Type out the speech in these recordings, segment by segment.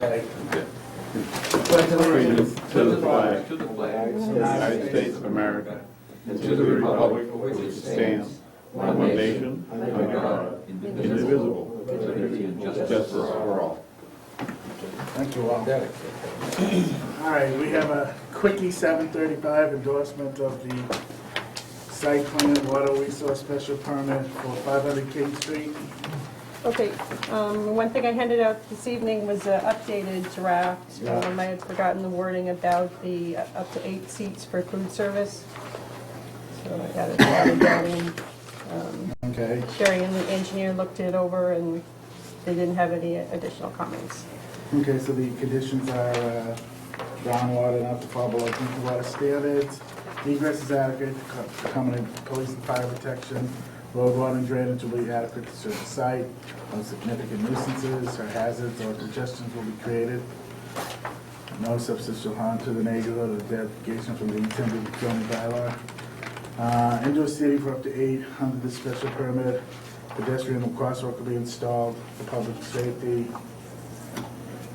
Right. Okay. Pledge allegiance To the flag To the flag. of the United States of America, and to the republic for which it stands, one nation, under God, indivisible, with liberty and justice for all. Thank you all. All right, we have a quickie seven thirty-five endorsement of the site plan water resource special permit for five hundred King Street. Okay, um, one thing I handed out this evening was an updated draft. Yeah. Um, I had forgotten the wording about the uh, up to eight seats for food service. So I added added that in. Um, Okay. Sherry and the engineer looked it over and they didn't have any additional comments. Okay, so the conditions are uh, groundwater not to fall below drinking water standards, egress is adequate, co- common police and fire protection, road water and drainage will be adequate to serve the site, no significant nuisances or hazards or congestions will be created, no substantial harm to the neighborhood or deviation from the intended zoning bylaw. Uh, Indoor seating for up to eight under the special permit, pedestrian and crosswalk will be installed for public safety.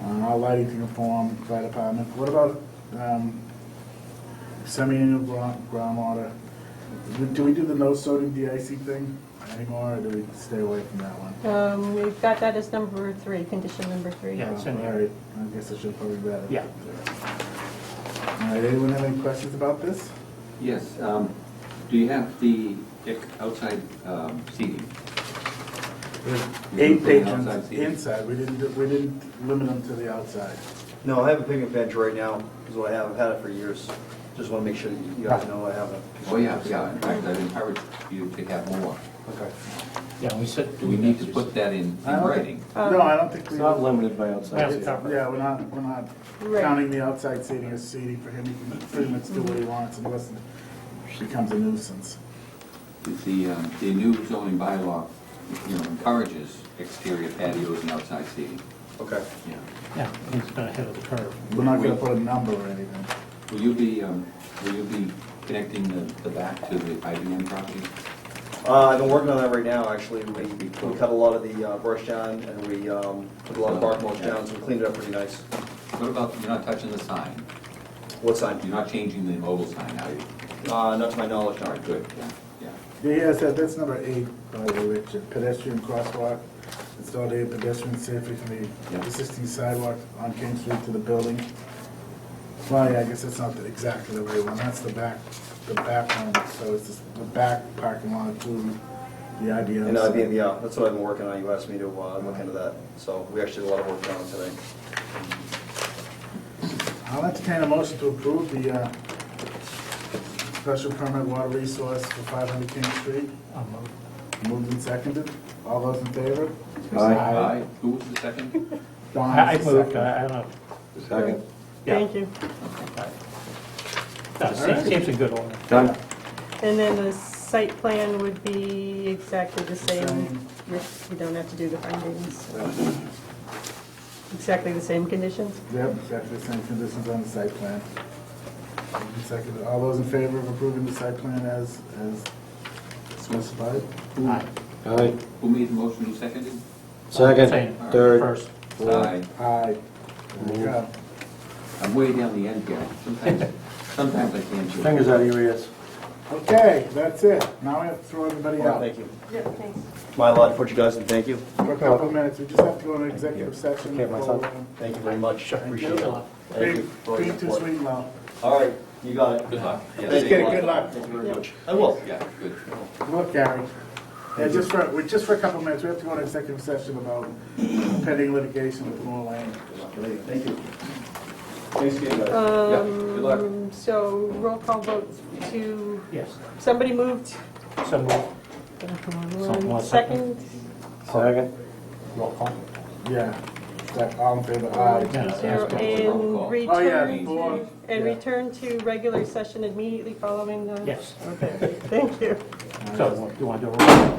Uh, All lighting to conform, fire department. What about um, semi-annual gro- groundwater? Do- Do we do the no sodium de-icing thing anymore, or do we stay away from that one? Um, We've got that as number three, condition number three. Yeah. it's in All here. right, I guess I should probably read it. Yeah. All right, anyone have any questions about this? Yes, um, do you have the ex- outside um, seating? Eight Anything outside patrons seating? inside, we didn't, do- we didn't limit them to the outside. No, I have a picnic bench right now, is what I have, I've had it for years. Just want to make sure that you guys know I have a. Oh, yeah, yeah, in fact, I'd encourage you to have more. Okay. Yeah, we said. Do we need to put that in in I don't writing? think- No, I don't think we. It's not limited by outside. That's seating. covered. Yeah, we're not, we're not Right. counting the outside seating as seating for him, he can pretty much do what he wants unless it becomes a nuisance. Is the, um, the new zoning bylaw, you know, encourages exterior patios and outside seating? Okay. Yeah. Yeah, it's not ahead of the curve. We're not gonna put a number or anything. Will you be, um, will you be connecting the, the back to the IBM property? Uh, I've been working on that right now, actually. We, we cut a lot of the uh, brush down and we, um, put a lot of bark mulch down, so we cleaned it up pretty nice. What about, you're not touching the sign? What sign? You're not changing the mobile sign, are you? Uh, not to my knowledge, All no. right, good, yeah, yeah. Yeah, yes, that- that's number eight, by the way, Richard, pedestrian crosswalk, installed a pedestrian safely from the Yeah. existing sidewalk on King Street to the building. Well, yeah, I guess that's not the- exactly the right one, that's the back, the back one, so it's just the back parking lot to the IBM. And, uh, site. yeah, that's what I've been working on. You asked me to, uh, look into that. So we actually did a lot of work on it today. I'll entertain a motion to approve the uh, special permit water resource for 500 King Street. I'll move. Moved and seconded. All those in favor? Aye. Who was the second? Don I I uh, is the moved, second. I I don't. Second. yeah. Thank you. No, seems- Seems a good order. Done. And then the site plan would be exactly the same. Same. You you don't have to do the findings. Exactly the same conditions? Yep, exactly the same conditions on the site plan. Moved and seconded. All those in favor of approving the site plan as as specified? Aye. Aye. Who made the motion, who seconded? Same, Second, third, First. Aye. Aye. There you go. I'm way down the end here. Sometimes, sometimes I can't do it. fingers out of your ears. Okay, that's it. Now we have to throw everybody Well, out. thank you. Yeah, thanks. My lot to put you guys in. Thank you. For a couple of minutes, we just have to go into executive session. Okay, my son. for, um, Thank you very much. Appreciate it. Thank you Being for all your being too support. sweet, Mel. All right, you got it. Good luck. Yeah, Thank thank you. Get it, good luck. Thank you very Yep. much. I will. Yeah, good. Look, Gary, yeah, just for, we just for a couple minutes, we have to go into executive session about pending litigation with Moore Lane. Thank you. Thanks again, guys. Yeah, good luck. Um, So roll call vote to, Yes, somebody moved, so move. one more second. second. Second. Roll call. Yeah, that, all in favor, aye. Yeah, Zero, that's good. Roll call. And Oh, yeah, return, four, and Yeah. return to regular session immediately following the. Yes, Okay, thank you. so you want to do a roll?